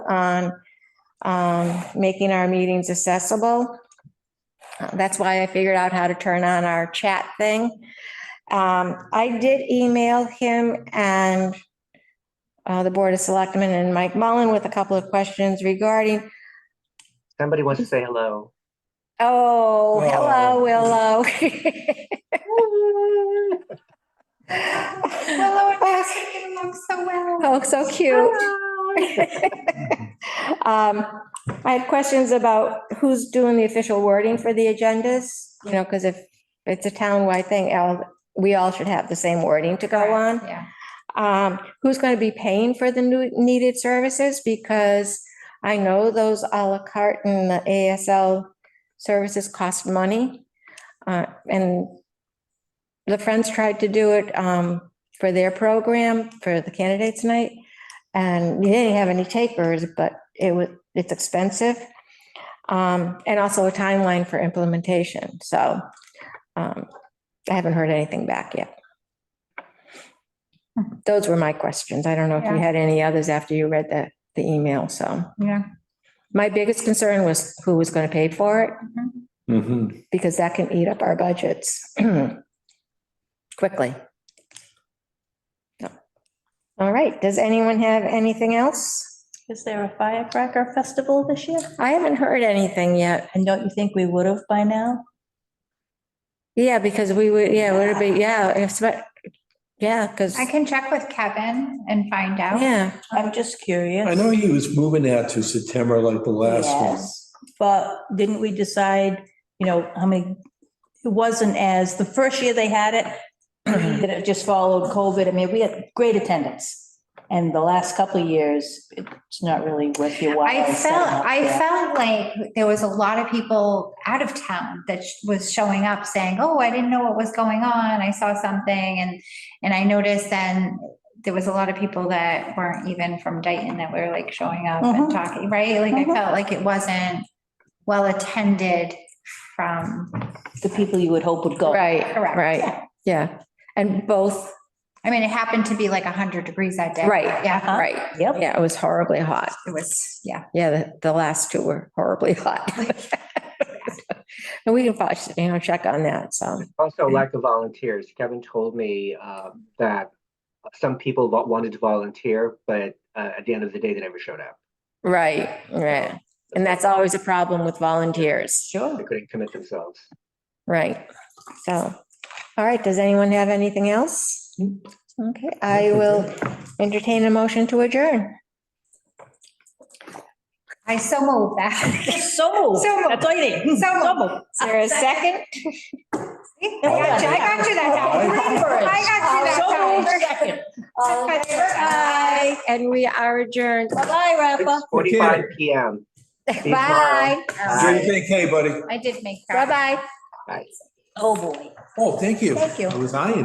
on um, making our meetings accessible. Uh, That's why I figured out how to turn on our chat thing. Um, I did email him and uh, the Board of Selectmen and Mike Mullen with a couple of questions regarding, Somebody wants to say hello. oh, hello, Oh. Willow. Willow and Max are getting along so well. Oh, so cute. Um, I had questions about who's doing the official wording for the agendas, you know, because if it's a townwide thing, Al, we all should have the same wording to go on. Yeah. Um, who's going to be paying for the new needed services? Because I know those à la carte and the ASL services cost money. Uh, and the Friends tried to do it, um, for their program for the candidates night. And they didn't have any takers, but it was, it's expensive. Um, and also a timeline for implementation. So, um, I haven't heard anything back yet. Those were my questions. I don't know if you Yeah. had any others after you read the, the email. So Yeah. my biggest concern was who was going to pay for it Mhm. Mhm. because that can eat up our budgets quickly. So, All right, does anyone have anything else? Is there a firecracker festival this year? I haven't heard anything yet. And don't you think we would have by now? Yeah, because we would, yeah, would it be, yeah, it's, but, yeah, because, I can check with Kevin and find out. yeah. I'm just curious. I know he was moving that to September like the last one. Yes, But didn't we decide, you know, how many, it wasn't as, the first year they had it, that it just followed COVID. I mean, we had great attendance. And the last couple of years, it's not really worth your while. I setting felt, up I there. felt like there was a lot of people out of town that sh- was showing up saying, oh, I didn't know what was going on. I saw something and, and I noticed then there was a lot of people that weren't even from Dayton that were like showing up and Mm-hmm. Mhm. talking, right? Like I Mhm. felt like it wasn't well attended from, The people you would hope would go. Right, correct. right, yeah. And both, I mean, it happened to be like hundred degrees that day. Right. Uh-huh. Yeah. Huh? right. Yep. Yeah, it was horribly hot. It was, yeah. Yeah, the, the last two were horribly hot. And we can, fo- you know, check on that, so. Also, lack of volunteers. Kevin told me um, that some people wa- wanted to volunteer, but uh, at the end of the day, they never showed up. Right, right. And that's always a problem with volunteers, They Sure. couldn't commit themselves. right? So, all right, does anyone have anything else? Okay, I will entertain a motion to adjourn. I so moved that. So, So moved. that's all you need. So moved. moved. Is there a second? I got you I got you that time. I got you So that moved, time. second. All in favor? Aye. And we are adjourned. Bye, Rafa. Forty-five PM. See you tomorrow. Bye, Jay, thank hey, buddy. I did make. that. bye-bye. Bye. Oh, boy. Oh, thank you. Thank you. I was eyeing